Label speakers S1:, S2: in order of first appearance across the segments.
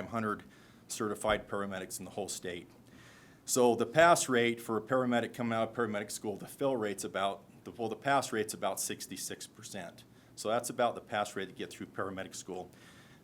S1: 500 certified paramedics in the whole state. So the pass rate for a paramedic coming out of paramedic school, the fill rate's about, the, well, the pass rate's about 66%. So that's about the pass rate to get through paramedic school.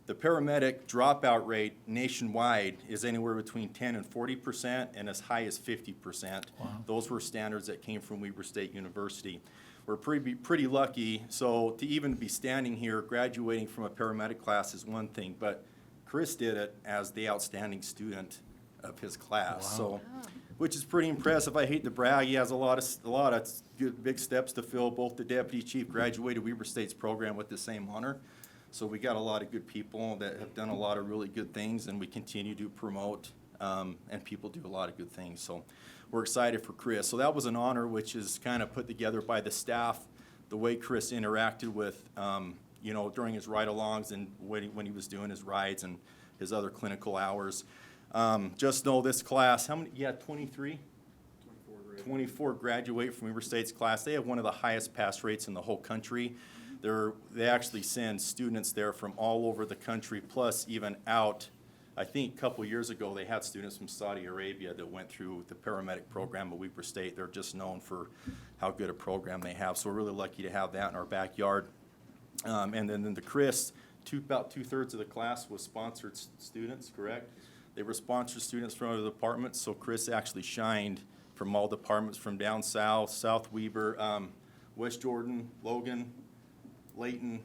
S1: The paramedic dropout rate nationwide is anywhere between 10 and 40% and as high as 50%. Those were standards that came from Weber State University. We're pretty, pretty lucky, so to even be standing here, graduating from a paramedic class is one thing, but Chris did it as the outstanding student of his class, so, which is pretty impressive. I hate to brag, he has a lot of, s- a lot of s- good, big steps to fill. Both the deputy chief graduated Weber State's program with the same honor. So we got a lot of good people that have done a lot of really good things and we continue to promote, um, and people do a lot of good things, so we're excited for Chris. So that was an honor which is kind of put together by the staff, the way Chris interacted with, um, you know, during his ride-alongs and when he, when he was doing his rides and his other clinical hours. Um, just know this class, how many, you had twenty-three? Twenty-four graduate from Weber State's class. They have one of the highest pass rates in the whole country. They're, they actually send students there from all over the country, plus even out. I think a couple years ago, they had students from Saudi Arabia that went through the paramedic program at Weber State. They're just known for how good a program they have, so we're really lucky to have that in our backyard. Um, and then, then the Chris, two, about two-thirds of the class was sponsored s- students, correct? They were sponsored students from other departments, so Chris actually shined from all departments, from down south, South Weber, um, West Jordan, Logan, Layton,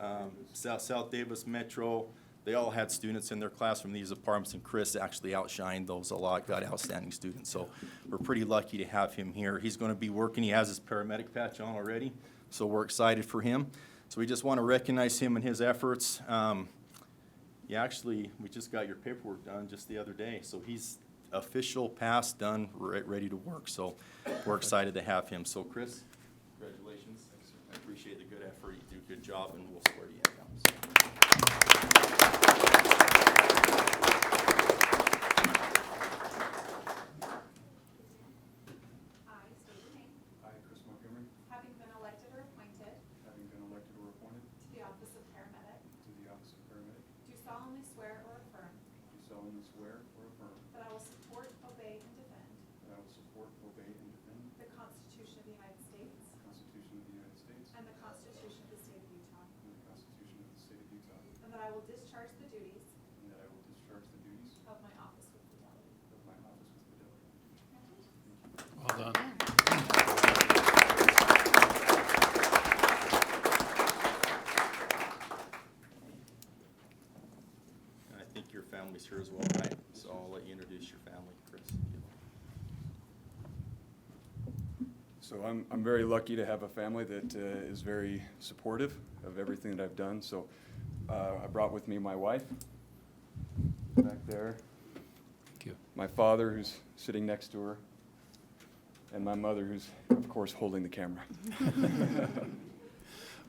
S1: um, South, South Davis Metro. They all had students in their class from these departments, and Chris actually outshined those a lot, got outstanding students. So we're pretty lucky to have him here. He's going to be working, he has his paramedic patch on already, so we're excited for him. So we just want to recognize him and his efforts. Um, yeah, actually, we just got your paperwork done just the other day, so he's official pass done, re- ready to work, so we're excited to have him. So Chris, congratulations. I appreciate the good effort, you do a good job, and we'll swear you in. now.
S2: I state your name,
S3: I, Chris Montgomery,
S2: having been elected or appointed
S3: having been elected or appointed
S2: to the office of paramedic,
S3: to the office of paramedic,
S2: do solemnly swear or affirm
S3: do solemnly swear or affirm
S2: that I will support, obey, and defend
S3: that I will support, obey, and defend
S2: the Constitution of the United States
S3: the Constitution of the United States
S2: and the Constitution of the State of Utah,
S3: and the Constitution of the State of Utah,
S2: and that I will discharge the duties
S3: and that I will discharge the duties
S2: of my office with fidelity.
S3: of my office with fidelity.
S4: Well done.
S1: And I think your family's here as well, right? So I'll let you introduce your family, Chris. if you'd like.
S5: So I'm, I'm very lucky to have a family that uh, is very supportive of everything that I've done. So uh, I brought with me my wife back there,
S4: Thank you.
S5: my father who's sitting next to her, and my mother who's, of course, holding the camera.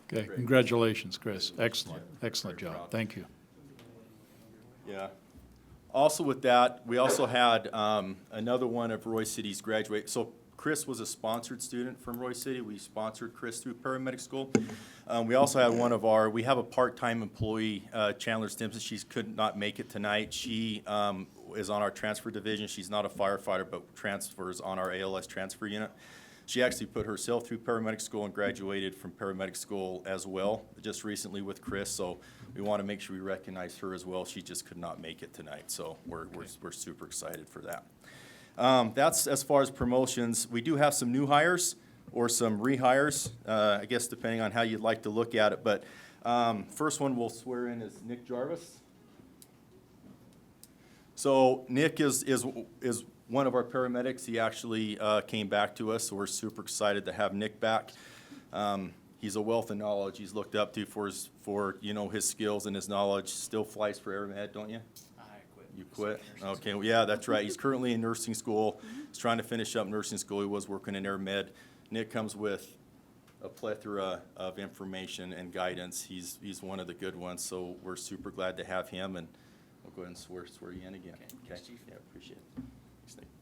S4: Okay,
S1: Great.
S4: congratulations, Chris. Excellent, excellent
S1: Very proud.
S4: job. Thank you.
S1: Yeah. Also with that, we also had um, another one of Roy City's graduate. So Chris was a sponsored student from Roy City. We sponsored Chris through paramedic school. Um, We also had one of our, we have a part-time employee, uh, Chandler Stimson. She's could not make it tonight. She um, is on our transfer division. She's not a firefighter, but transfers on our ALS transfer unit. She actually put herself through paramedic school and graduated from paramedic school as well, just recently with Chris. So we want to make sure we recognize her as well. She just could not make it tonight, so we're, we're, we're super excited for that. Um, that's as far as promotions. We do have some new hires or some rehires, uh, I guess depending on how you'd like to look at it. But um, first one we'll swear in is Nick Jarvis. So Nick is, is, is one of our paramedics. He actually uh, came back to us, so we're super excited to have Nick back. Um, He's a wealth of knowledge. He's looked up to for his, for, you know, his skills and his knowledge. Still flies for AirMed, don't you?
S6: I quit.
S1: You quit? Okay, well, yeah, that's right. He's currently in nursing school. He's trying to finish up nursing school. He was working in air med. Nick comes with a plethora of information and guidance. He's, he's one of the good ones, so we're super glad to have him, and we'll go ahead and swear, swear you in again.
S6: Okay, thanks, Chief.
S1: Yeah, appreciate it. Thanks, Nick.